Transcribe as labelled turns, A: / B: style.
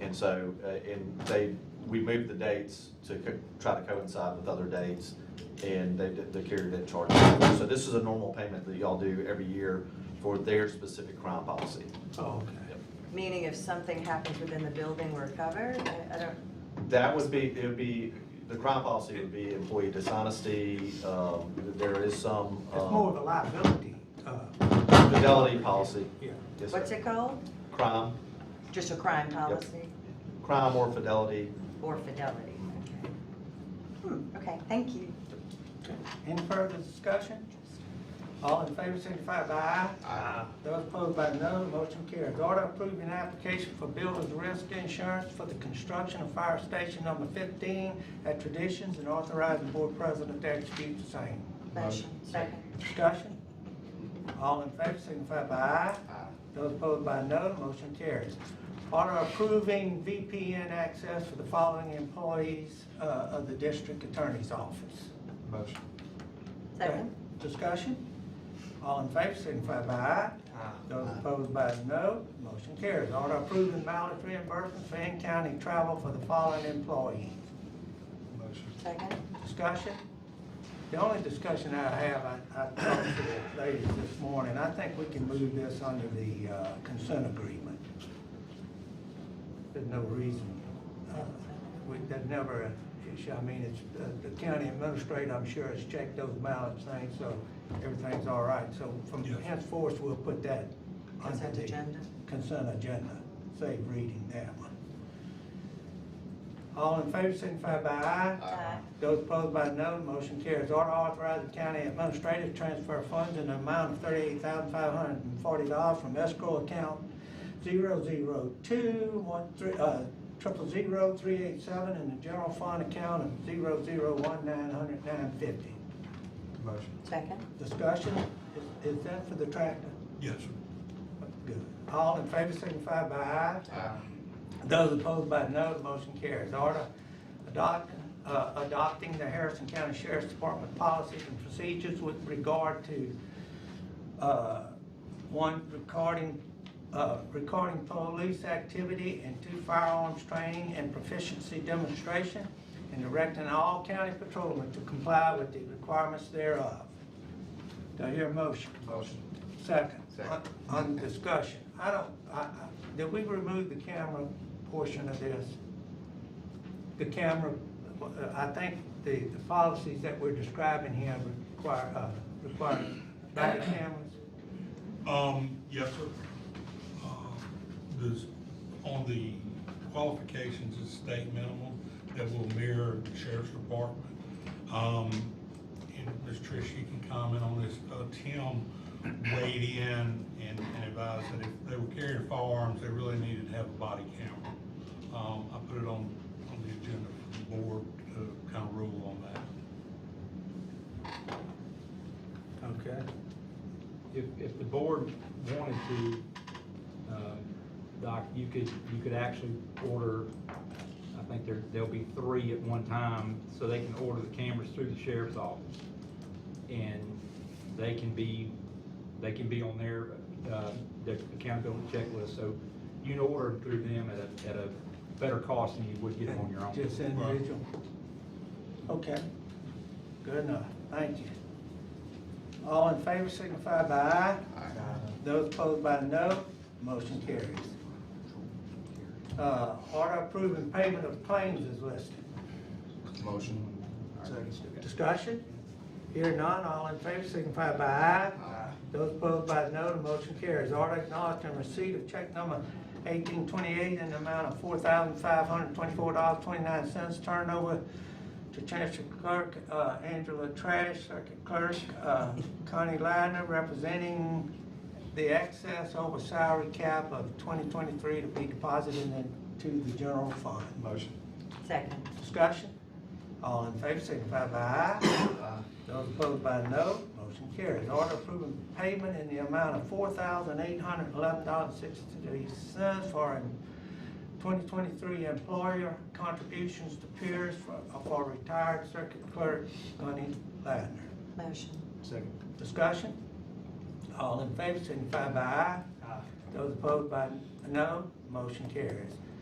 A: And so, uh, and they, we moved the dates to co- try to coincide with other dates, and they, did- the carrier didn't charge. us. So this is a normal payment that y'all do every year for their specific crime policy.
B: Oh, okay.
C: Meaning if something happens within the building, we're covered? I- I don't,
A: That would be, it would be, the crime policy would be employee dishonesty, um, there is some,
B: It's more of
A: um,
B: a liability, uh,
A: fidelity policy.
B: yeah.
A: Yes,
C: what's
A: sir.
C: it called?
A: Crime,
C: Just a crime policy
A: crime or fidelity.
C: or fidelity? Okay. Hmm, okay, thank you.
B: Any further discussion? All in favor, signify by aye. Aye. Those opposed by no, motion carries. Order approving application for builder's risk insurance for the construction of fire station number fifteen at Traditions and authorizing board president to execute the same.
C: Motion, second.
B: Discussion? All in favor, signify by aye. Those opposed by no, motion carries. Order approving VPN access for the following employees uh, of the district attorney's office.
D: Motion.
C: Second,
B: Discussion? All in favor, signify by aye. Those opposed by no, motion carries. Order approving mileage reimbursement for in-county travel for the following employees.
D: Motion.
C: second,
B: Discussion? The only discussion I have, I, I talked to the ladies this morning, I think we can move this under the uh, consent agreement. There's no reason, uh, we, there's never an issue, I mean, it's, uh, the county administrator, I'm sure, has checked those ballots things, so everything's all right, so from
D: Yes.
B: henceforth, we'll put that under
C: consent
B: the
C: agenda.
B: consent agenda, save reading that one. All in favor, signify by aye.
C: Aye.
B: Those opposed by no, motion carries. Order authorizing county administrative transfer funds in the amount of thirty-eight thousand five hundred and forty dollars from escrow account zero zero two one three, uh, triple zero three eight seven and the general fund account of zero zero one nine hundred nine fifty.
D: Motion.
C: Second,
B: Discussion, is, is that for the tractor?
D: Yes.
B: Good. All in favor signify by aye. Those opposed by no, the motion carries. Order adopt- uh, adopting the Harrison County Sheriff's Department policies and procedures with regard to, uh, one, recording, uh, recording police activity, and two, firearms training and proficiency demonstration, and directing all county patrolmen to comply with the requirements thereof. Do I hear a motion?
D: Motion.
B: Second.
D: Second.
B: On- On discussion, I don't, I, I, did we remove the camera portion of this? The camera, uh, I think the, the policies that we're describing here require, uh, require body cameras.
E: Um, yes, sir. Uh, This, on the qualifications, it's state minimum that will mirror the sheriff's department. Um, and Ms. Trish, you can comment on this. Uh, Tim weighed in and and advised that if they were carrying firearms, they really needed to have a body camera. Um, I put it on, on the agenda for the board to kind of rule on that.
B: Okay.
F: If, if the board wanted to, uh, Doc, you could, you could actually order, I think there, there'll be three at one time, so they can order the cameras through the sheriff's office. And they can be, they can be on their, uh, their accountability checklist, so you can order them through them at a, at a better cost than you would get them on your own.
B: Just individual. Okay, good enough, thank you. All in favor signify by aye. Those opposed by no, motion carries. Uh, order approving payment of claims is listed.
D: Motion.
B: Discussion? Here none, all in favor signify by aye.
D: Aye.
B: Those opposed by no, the motion carries. Order acknowledging receipt of check number eighteen twenty-eight in the amount of four thousand five hundred twenty-four dollars, twenty-nine cents turned over to Chancellor Clerk, uh, Angela Trash, Circuit Clerk, uh, Connie Ladner, representing the excess over salary cap of twenty twenty-three to be deposited into the general fund.
D: Motion.
C: second,
B: Discussion? All in favor, signify by aye. Those opposed by no, motion carries. Order approving payment in the amount of four thousand eight hundred eleven dollars sixty-three cents for twenty twenty-three employer contributions to peers for, for retired circuit clerk Gunny Ladner.
C: motion,
D: Second.
B: Discussion? All in favor, signify by aye. Those opposed by no, motion carries.